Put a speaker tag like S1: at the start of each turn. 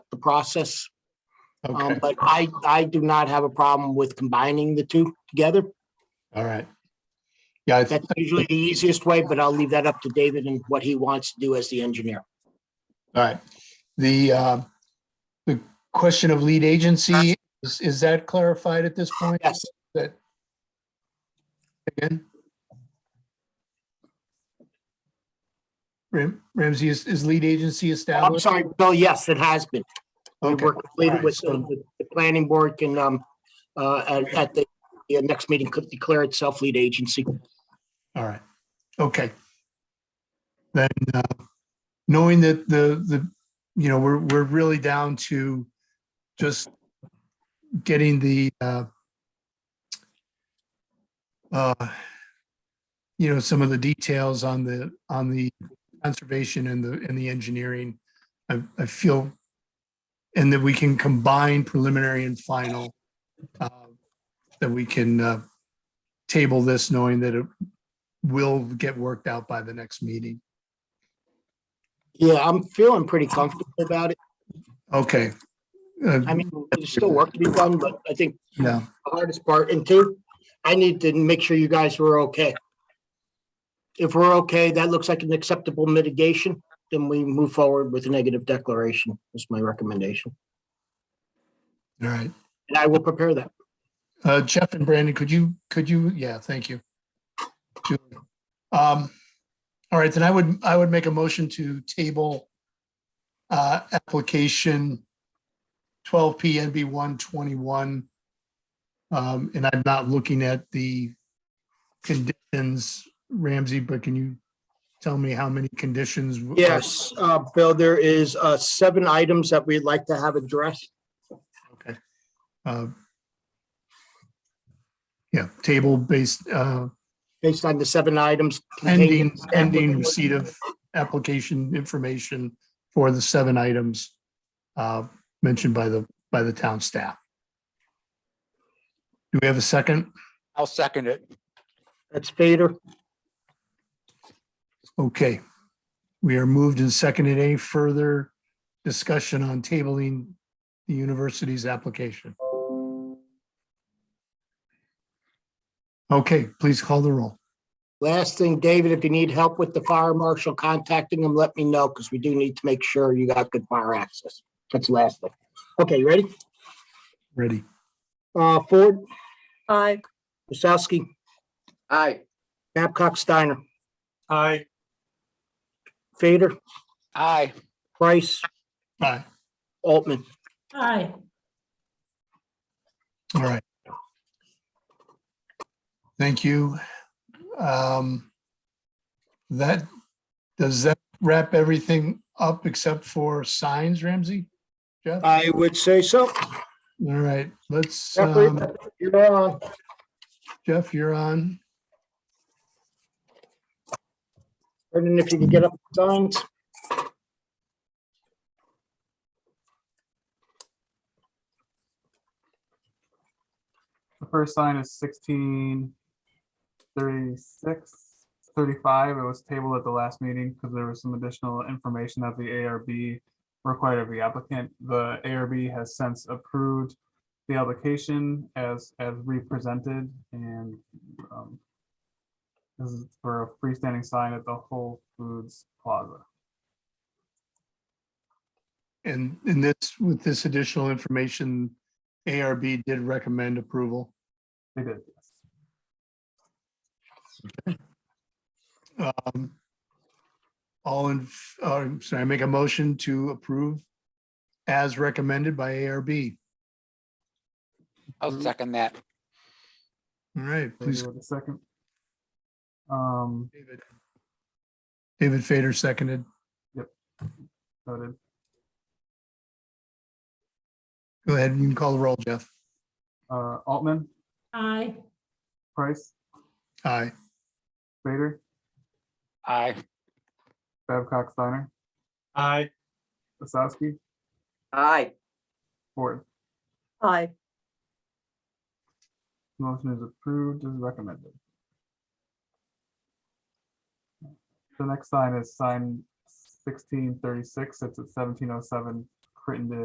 S1: the process. Um,
S2: Okay,
S1: but I, I do not have a problem with combining the two together.
S2: all right. Yeah, I think,
S1: That's usually the easiest way, but I'll leave that up to David and what he wants to do as the engineer.
S2: all right. The, uh, the question of lead agency, is, is that clarified at this point?
S1: Uh, Yes,
S2: That again? Ram- Ramsey, is, is lead agency
S1: Oh, I'm
S2: established?
S1: sorry, Bill, yes, it has been. We
S2: Okay,
S1: were completed
S2: alright,
S1: with,
S2: so-
S1: the the planning board can, um, uh, at, at the the next meeting could declare itself lead agency.
S2: all right, okay. Then, uh, knowing that the, the, you know, we're, we're really down to just getting the, uh, uh, you know, some of the details on the, on the conservation and the, and the engineering. I, I feel, and that we can combine preliminary and final. uh, That we can uh, table this knowing that it will get worked out by the next meeting.
S1: Yeah, I'm feeling pretty comfortable about it.
S2: Okay. Uh,
S1: I mean, there's still work to be done, but I think
S2: Yeah,
S1: the hardest part. And two, I need to make sure you guys were okay. If we're okay, that looks like an acceptable mitigation, then we move forward with a negative declaration, is my recommendation.
S2: all right.
S1: And I will prepare that.
S2: Uh, Jeff and Brandon, could you, could you, yeah, thank you. Julie. Um, all right, then I would, I would make a motion to table uh, application twelve P N B one twenty-one. Um, and I'm not looking at the conditions, Ramsey, but can you tell me how many conditions? w- are-
S1: Yes, uh, Bill, there is, uh, seven items that we'd like to have addressed.
S2: Okay. Uh, Yeah, table based, uh,
S1: based on the seven items. contained in
S2: Ending,
S1: the
S2: ending
S1: application.
S2: receipt of application information for the seven items uh, mentioned by the, by the town staff. Do we have a second?
S3: I'll second it.
S1: That's Fader.
S2: Okay. We are moved and seconded. Any further discussion on tabling the university's application? Okay, please call the roll.
S1: Last thing, David, if you need help with the fire marshal contacting them, let me know because we do need to make sure you got good fire access. That's the last thing. Okay, you ready?
S2: Ready?
S1: Uh, Ford,
S4: Aye.
S1: Wasowski,
S3: Aye.
S1: Babcock, Steiner,
S3: Aye.
S1: Fader,
S3: Aye.
S1: Price,
S2: Aye.
S1: Altman.
S4: Aye.
S2: All right. Thank you. Um, That, does that wrap everything up except for signs, Ramsey? Jeff? All
S1: I would say so.
S2: right, let's,
S1: Jeffrey,
S2: um,
S1: You're on.
S2: Jeff, you're on.
S1: Brendan, if you can get up the signs.
S5: The first sign is sixteen thirty-six, thirty-five. It was tabled at the last meeting because there was some additional information that the ARB required of the applicant. The ARB has since approved the application as, as represented and um, this is for a freestanding sign at the Whole Foods Plaza.
S2: And in this, with this additional information, ARB did recommend approval.
S5: They did. yes.
S2: Um, All in, f- uh, I'm sorry, I make a motion to approve as recommended by ARB.
S3: I'll second that.
S2: All right,
S5: Maybe
S2: please
S5: with a second. Um,
S2: David. David Fader seconded.
S5: voted.
S2: Go ahead, you can call the roll, Jeff.
S5: Uh, Altman,
S4: Aye.
S5: Price,
S2: Aye.
S5: Vader.
S3: Aye.
S5: Babcock Steiner,
S3: Aye.
S5: Wasowski,
S3: Aye.
S5: Ford.
S4: Aye.
S5: Motion is approved as recommended. The next sign is sign sixteen thirty-six. It's at seventeen oh seven Crittenden